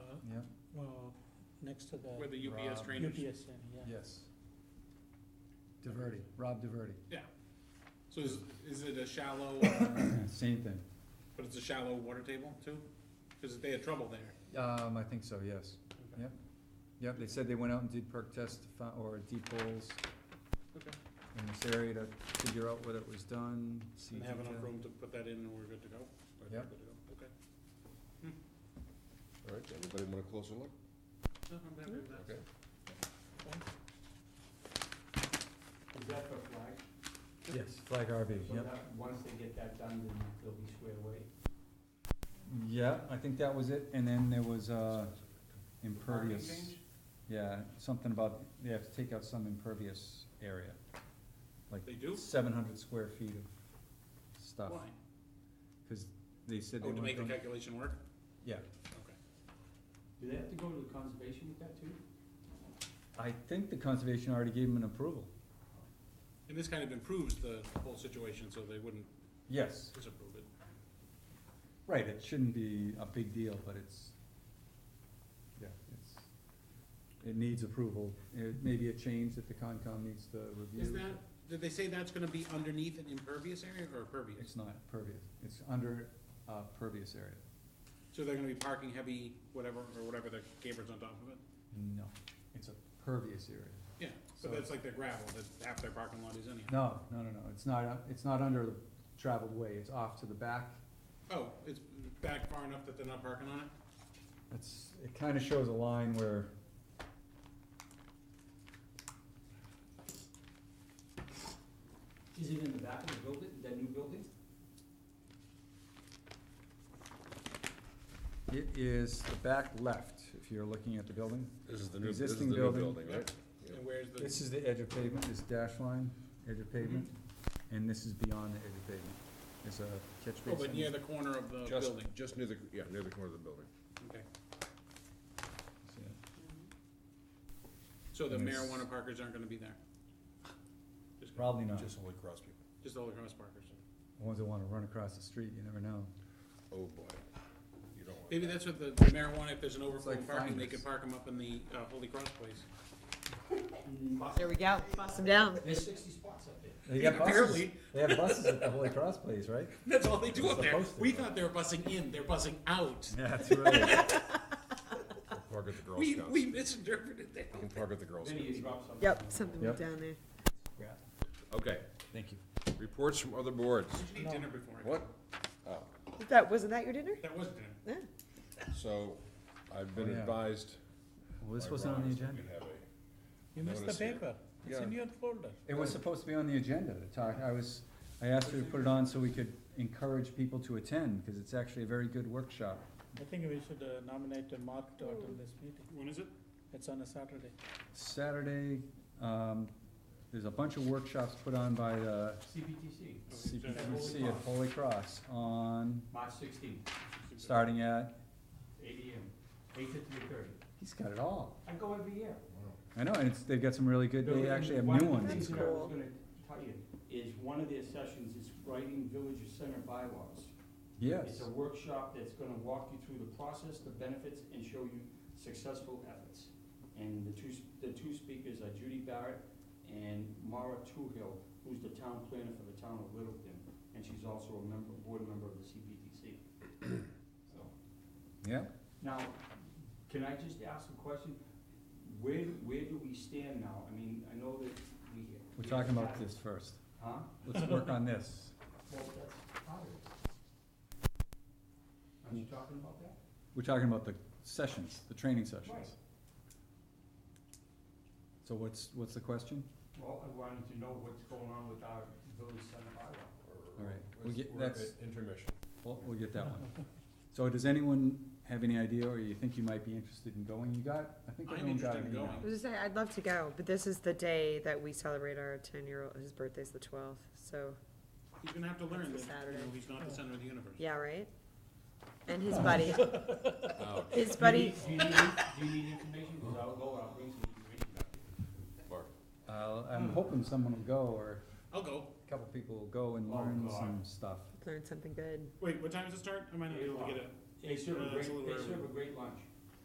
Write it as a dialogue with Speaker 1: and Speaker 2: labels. Speaker 1: next to the
Speaker 2: Uh-huh. where the UPS
Speaker 3: Rob.
Speaker 2: drainage.
Speaker 1: UPS center, yeah.
Speaker 3: Yes. Diverty, Rob Diverty.
Speaker 2: So is, is it a shallow, uh,
Speaker 3: Same thing.
Speaker 2: but it's a shallow water table too? Cause they had trouble there.
Speaker 3: Um, I think so, yes.
Speaker 2: Okay.
Speaker 3: Yep. Yep, they said they went out and did perk tests to fi- or deep holes
Speaker 2: Okay.
Speaker 3: in this area to figure out whether it was done, see
Speaker 2: And they have enough
Speaker 3: detail.
Speaker 2: room to put that in and we're good to go? Or they're
Speaker 3: Yep.
Speaker 2: good to go? Okay.
Speaker 4: All right, anybody want a closer look?
Speaker 2: No, I'm happy with that.
Speaker 4: Okay.
Speaker 5: Is that for flag?
Speaker 3: Yes, Flag RV,
Speaker 5: So
Speaker 3: yep.
Speaker 5: that, once they get that done, then they'll be squared away?
Speaker 3: Yeah, I think that was it, and then there was, uh, impervious.
Speaker 2: change?
Speaker 3: Yeah, something about, they have to take out some impervious area, like
Speaker 2: They do?
Speaker 3: seven hundred square feet of stuff.
Speaker 2: Why?
Speaker 3: Cause they said Uh, they
Speaker 2: Oh, to
Speaker 3: weren't
Speaker 2: make the
Speaker 3: gonna,
Speaker 2: calculation work?
Speaker 3: yeah,
Speaker 2: Okay.
Speaker 5: Do they have to go to the conservation with that too?
Speaker 3: I think the conservation already gave them an approval,
Speaker 2: And this kind of improves the whole situation, so they wouldn't
Speaker 3: yes,
Speaker 2: disapprove it.
Speaker 3: right, it shouldn't be a big deal, but it's, yeah, it's, it needs approval, it may be a change that the Concom needs to review.
Speaker 2: Is that, did they say that's gonna be underneath an impervious area or pervious?
Speaker 3: It's not pervious, it's under, uh, pervious area,
Speaker 2: So they're gonna be parking heavy, whatever, or whatever the gabers on top of it?
Speaker 3: no, it's a pervious area.
Speaker 2: Yeah,
Speaker 3: So-
Speaker 2: but that's like their gravel, that half their parking lot is anyhow.
Speaker 3: No, no, no, no, it's not, uh, it's not under the traveled way, it's off to the back.
Speaker 2: Oh, it's back far enough that they're not parking on it?
Speaker 3: It's, it kinda shows a line where.
Speaker 5: Is it in the back of the building, that new building?
Speaker 3: It is the back left, if you're looking at the building.
Speaker 4: This is the new, this is the
Speaker 3: Existing
Speaker 4: new
Speaker 3: building.
Speaker 4: building, right? Yeah.
Speaker 2: And where's the,
Speaker 3: This is the edge of pavement, this dash line, edge of pavement,
Speaker 5: Mm-hmm.
Speaker 3: and this is beyond the edge of pavement. It's a catch
Speaker 2: oh, but near
Speaker 3: basin.
Speaker 2: the corner of the
Speaker 4: Just,
Speaker 2: building,
Speaker 4: just near the, yeah, near the corner of the building.
Speaker 2: okay.
Speaker 3: Yeah.
Speaker 2: So the
Speaker 3: And it's-
Speaker 2: marijuana parkers aren't gonna be there? Just-
Speaker 3: Probably not, the
Speaker 4: Just only cross people.
Speaker 2: Just all the cross parkers.
Speaker 3: ones that wanna run across the street, you never know.
Speaker 4: Oh, boy. You don't want
Speaker 2: Maybe
Speaker 4: that.
Speaker 2: that's what the the marijuana, if there's an overflow
Speaker 3: like
Speaker 2: parking, they
Speaker 3: finders.
Speaker 2: could park them up in the uh, Holy Cross place.
Speaker 6: There we go, bust them down.
Speaker 5: There's sixty spots up there.
Speaker 3: They got buses,
Speaker 2: Apparently.
Speaker 3: they have buses at the Holy Cross place, right?
Speaker 2: That's all they do up there.
Speaker 3: Supposed to,
Speaker 2: We
Speaker 3: right?
Speaker 2: thought they were bussing in, they're bussing out.
Speaker 3: Yeah, that's right.
Speaker 4: Park at the Girl
Speaker 2: We,
Speaker 4: Scouts.
Speaker 2: we
Speaker 4: You
Speaker 2: misinterpreted that.
Speaker 4: can park at the Girl
Speaker 5: Then
Speaker 4: Scouts.
Speaker 5: you drop something.
Speaker 6: Yep, something
Speaker 3: Yep.
Speaker 6: went down there.
Speaker 4: Okay,
Speaker 3: Thank you.
Speaker 4: reports from other boards.
Speaker 2: Did you eat dinner before? I-
Speaker 4: What?
Speaker 6: That, wasn't that your dinner?
Speaker 2: That was dinner.
Speaker 6: Yeah.
Speaker 4: So, I've been
Speaker 3: Oh, yeah.
Speaker 4: advised.
Speaker 3: Well, this
Speaker 4: by
Speaker 3: wasn't on
Speaker 4: Ron
Speaker 3: the
Speaker 4: that we
Speaker 3: agenda.
Speaker 4: have a-
Speaker 1: You missed the
Speaker 4: Notice here.
Speaker 1: paper, it's in
Speaker 4: Yeah.
Speaker 1: your folder.
Speaker 3: It was supposed to be on the agenda to talk, I was, I asked her to put it on so we could encourage people to attend, cause it's actually a very good workshop.
Speaker 1: I think we should uh, nominate uh, Mark to attend this meeting,
Speaker 2: When is it?
Speaker 1: it's on a Saturday.
Speaker 3: Saturday, um, there's a bunch of workshops put on by the
Speaker 5: CPTC,
Speaker 3: CPC at Holy Cross on,
Speaker 5: March sixteenth,
Speaker 3: starting at,
Speaker 5: eight AM, eight to three thirty.
Speaker 3: he's got it all.
Speaker 5: I go every year.
Speaker 3: I know, and it's, they've got some really good, they actually have new
Speaker 5: One of the
Speaker 3: ones.
Speaker 5: things that I was
Speaker 6: That's
Speaker 5: gonna tell you is one of their sessions is writing village center bylaws. It's
Speaker 3: Yes,
Speaker 5: a workshop that's gonna walk you through the process, the benefits, and show you successful efforts. And the two, s- the two speakers are Judy Barrett and Mara Toohill, who's the town planner for the town of Littleton, and she's also a member, board member of the CPTC. So,
Speaker 3: yeah,
Speaker 5: now, can I just ask a question? Where, where do we stand now? I mean, I know that we.
Speaker 3: we're talking about this first.
Speaker 5: Huh?
Speaker 3: Let's work on this.
Speaker 5: Well, that's part of it. Aren't you talking about that?
Speaker 3: We're talking about the sessions, the training
Speaker 5: Right.
Speaker 3: sessions. So what's, what's the question?
Speaker 5: Well, I wanted to know what's going on with our village center bylaw.
Speaker 3: All right,
Speaker 4: We're-
Speaker 3: we'll get,
Speaker 4: we're at
Speaker 3: that's-
Speaker 4: Intermission.
Speaker 3: We'll, we'll get that one. So does anyone have any idea, or you think you might be interested in going? You got, I think
Speaker 2: I'm
Speaker 3: everyone got
Speaker 2: interested
Speaker 3: an
Speaker 2: in
Speaker 3: email.
Speaker 6: I
Speaker 2: going.
Speaker 6: was just saying, I'd love to go, but this is the day that we celebrate our ten-year-old, his birthday's the twelfth, so,
Speaker 2: He's gonna have to learn
Speaker 6: It's a
Speaker 2: that, you know,
Speaker 6: Saturday. Oh.
Speaker 2: he's not the center of the universe.
Speaker 6: yeah, right? And his buddy,
Speaker 4: Ouch.
Speaker 6: his buddy,
Speaker 5: Do you need, do you need information? Cause I'll go, I'll bring some information back.
Speaker 4: Mark,
Speaker 3: I'll- Uh, I'm hoping someone will go, or
Speaker 2: I'll go.
Speaker 3: a couple people will go and
Speaker 5: Oh,
Speaker 3: learn
Speaker 5: God.
Speaker 3: some stuff.
Speaker 6: learned something good.
Speaker 2: Wait, what time does it start? I might not be able to get it.
Speaker 5: They serve
Speaker 2: Uh,
Speaker 5: a
Speaker 2: it's
Speaker 5: great,
Speaker 2: a little
Speaker 5: they
Speaker 2: early.
Speaker 5: serve a great lunch.